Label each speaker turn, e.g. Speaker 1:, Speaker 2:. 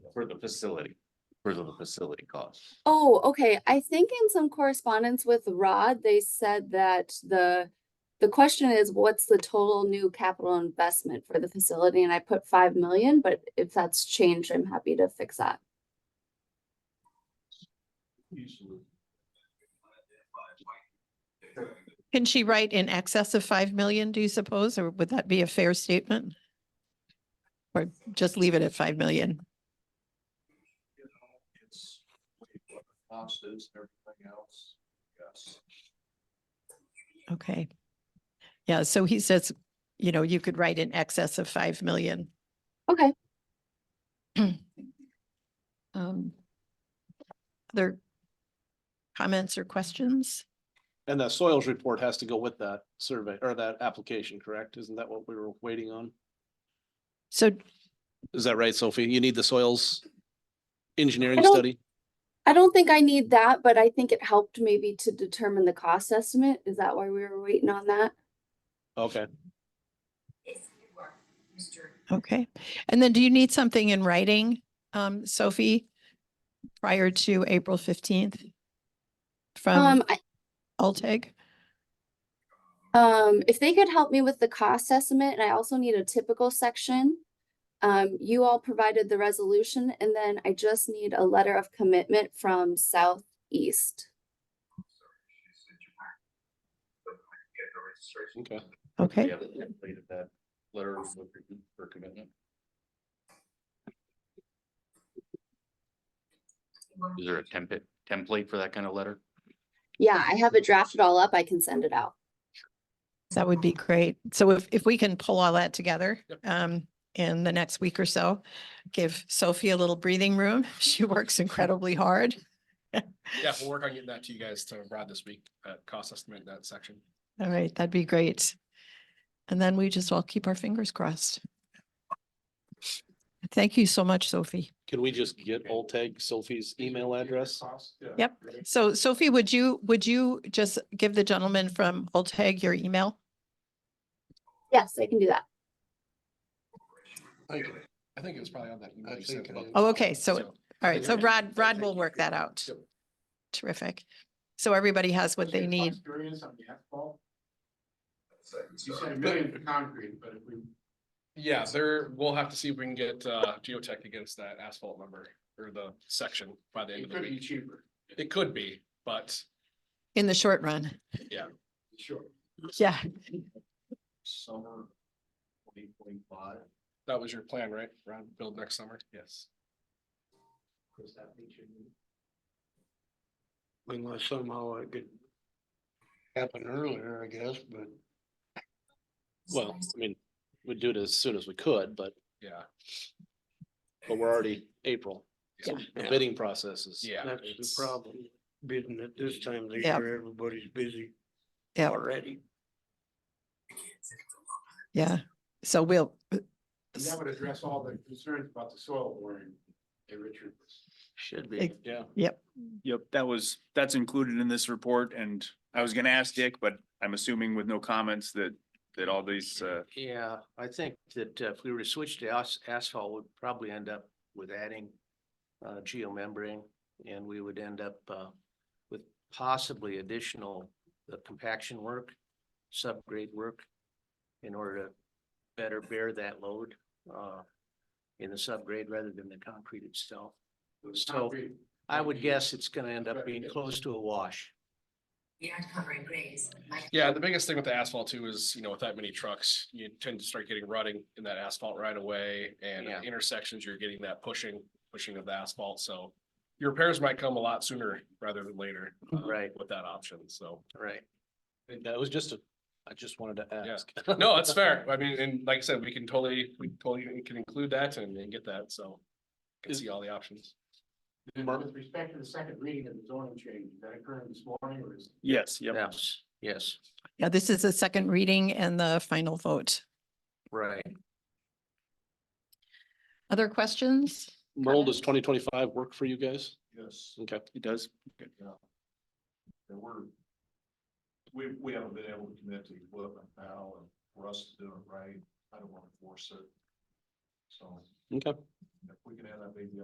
Speaker 1: for the facility, for the facility costs.
Speaker 2: Oh, okay. I think in some correspondence with Rod, they said that the, the question is, what's the total new capital investment for the facility? And I put five million, but if that's changed, I'm happy to fix that.
Speaker 3: Can she write in excess of five million, do you suppose, or would that be a fair statement? Or just leave it at five million?
Speaker 4: It's what the cost is and everything else, yes.
Speaker 3: Okay. Yeah, so he says, you know, you could write in excess of five million.
Speaker 2: Okay,
Speaker 3: Um, Other comments or questions?
Speaker 5: And the soils report has to go with that survey or that application, correct? Isn't that what we were waiting on?
Speaker 3: So,
Speaker 5: Is that right, Sophie? You need the soils
Speaker 2: I
Speaker 5: engineering
Speaker 2: don't-
Speaker 5: study?
Speaker 2: I don't think I need that, but I think it helped maybe to determine the cost estimate. Is that why we were waiting on that?
Speaker 5: Okay,
Speaker 3: okay. And then do you need something in writing, um, Sophie? Prior to April fifteenth? From
Speaker 2: Um, I,
Speaker 3: Alteg?
Speaker 2: um, if they could help me with the cost estimate, and I also need a typical section. Um, you all provided the resolution, and then I just need a letter of commitment from Southeast.
Speaker 5: okay.
Speaker 3: Okay.
Speaker 1: We haven't completed that letter of agreement for commitment. Is there a template, template for that kind of letter?
Speaker 2: Yeah, I have it drafted all up. I can send it out.
Speaker 3: That would be great. So if, if we can pull all that together, um, in the next week or so, give Sophie a little breathing room. She works incredibly hard.
Speaker 6: Yeah, we'll work on getting that to you guys to Rod this week, uh, cost estimate that section.
Speaker 3: All right, that'd be great. And then we just all keep our fingers crossed. Thank you so much, Sophie.
Speaker 5: Can we just get Olteg Sophie's email address?
Speaker 3: Yep. So Sophie, would you, would you just give the gentleman from Oldhag your email?
Speaker 2: Yes, I can do that.
Speaker 6: I think it was probably on that. email
Speaker 4: I
Speaker 6: you sent
Speaker 4: think it
Speaker 6: about-
Speaker 4: is.
Speaker 3: Oh, okay, so- All right, so
Speaker 6: Okay.
Speaker 3: Rod, Rod
Speaker 6: Thank
Speaker 3: will
Speaker 6: you.
Speaker 3: work that out.
Speaker 6: Yep.
Speaker 3: Terrific. So everybody has what they need.
Speaker 4: You said a million for concrete, but if we.
Speaker 6: Yeah, there, we'll have to see if we can get, uh, geotech against that asphalt number or the section by the end
Speaker 4: It
Speaker 6: of the
Speaker 4: could be
Speaker 6: week.
Speaker 4: cheaper,
Speaker 6: It could be, but
Speaker 3: In the short run.
Speaker 4: sure.
Speaker 3: Yeah.
Speaker 4: Summer twenty twenty-five,
Speaker 6: that was your plan, right? Rod, build next summer? Yes.
Speaker 4: because that means you need.
Speaker 7: unless somehow it could happen earlier, I guess, but
Speaker 5: Well, I mean, we'd do it as soon as we could, but,
Speaker 6: Yeah,
Speaker 5: but we're already April. So The
Speaker 7: Yeah.
Speaker 5: bidding process is.
Speaker 6: yeah.
Speaker 7: that's the
Speaker 6: it's-
Speaker 7: problem. Bidding at this time of the
Speaker 3: Yeah.
Speaker 7: year, everybody's busy
Speaker 3: Yeah,
Speaker 7: already.
Speaker 3: yeah. So we'll,
Speaker 4: And that would address all the concerns about the soil boring, hey, Richard.
Speaker 7: Should
Speaker 3: Ex-
Speaker 7: be.
Speaker 5: Yeah.
Speaker 8: Yep, that was, that's included in this report and I was gonna ask Dick, but I'm assuming with no comments that, that all these, uh,
Speaker 7: Yeah, I think that uh, if we were to switch to as- asphalt, we'd probably end up with adding uh, geomembrane and we would end up uh, with possibly additional uh, compaction work, subgrade work in order to better bear that load uh, in the subgrade rather than the concrete itself. So,
Speaker 4: Concrete,
Speaker 7: I
Speaker 4: Maybe
Speaker 7: would
Speaker 6: Mm-hmm.
Speaker 4: you-
Speaker 7: guess it's gonna end up
Speaker 4: Right,
Speaker 7: being
Speaker 4: yeah.
Speaker 7: close to a wash.
Speaker 9: We aren't covering graves. like-
Speaker 6: Yeah, the biggest thing with the asphalt too is, you know, with that many trucks, you tend to start getting rutting in that asphalt right away and at
Speaker 7: Yeah.
Speaker 6: intersections, you're getting that pushing, pushing of the asphalt, so. Your repairs might come a lot sooner rather than later. uh,
Speaker 7: Right.
Speaker 6: With that option, so.
Speaker 7: Right.
Speaker 5: That was just a, I just wanted to
Speaker 6: Yeah.
Speaker 5: ask.
Speaker 6: No, that's fair. I mean, and like I said, we can totally, we totally can include that and and get that, so. Can
Speaker 5: Is-
Speaker 6: see all the options.
Speaker 4: And With respect to the second reading of the zoning change, is that occurring this morning or is?
Speaker 8: yes, yep.
Speaker 7: Yes, yes,
Speaker 3: yeah, this is the second reading and the final vote.
Speaker 7: right.
Speaker 3: Other questions?
Speaker 5: Merle, does twenty twenty-five work for you guys?
Speaker 4: Yes.
Speaker 5: Okay.
Speaker 8: It does.
Speaker 4: And we're, we, we haven't been able to commit to equipment now, and for us to do it right, I don't wanna force it. So,
Speaker 5: Okay.
Speaker 4: if we can have that baby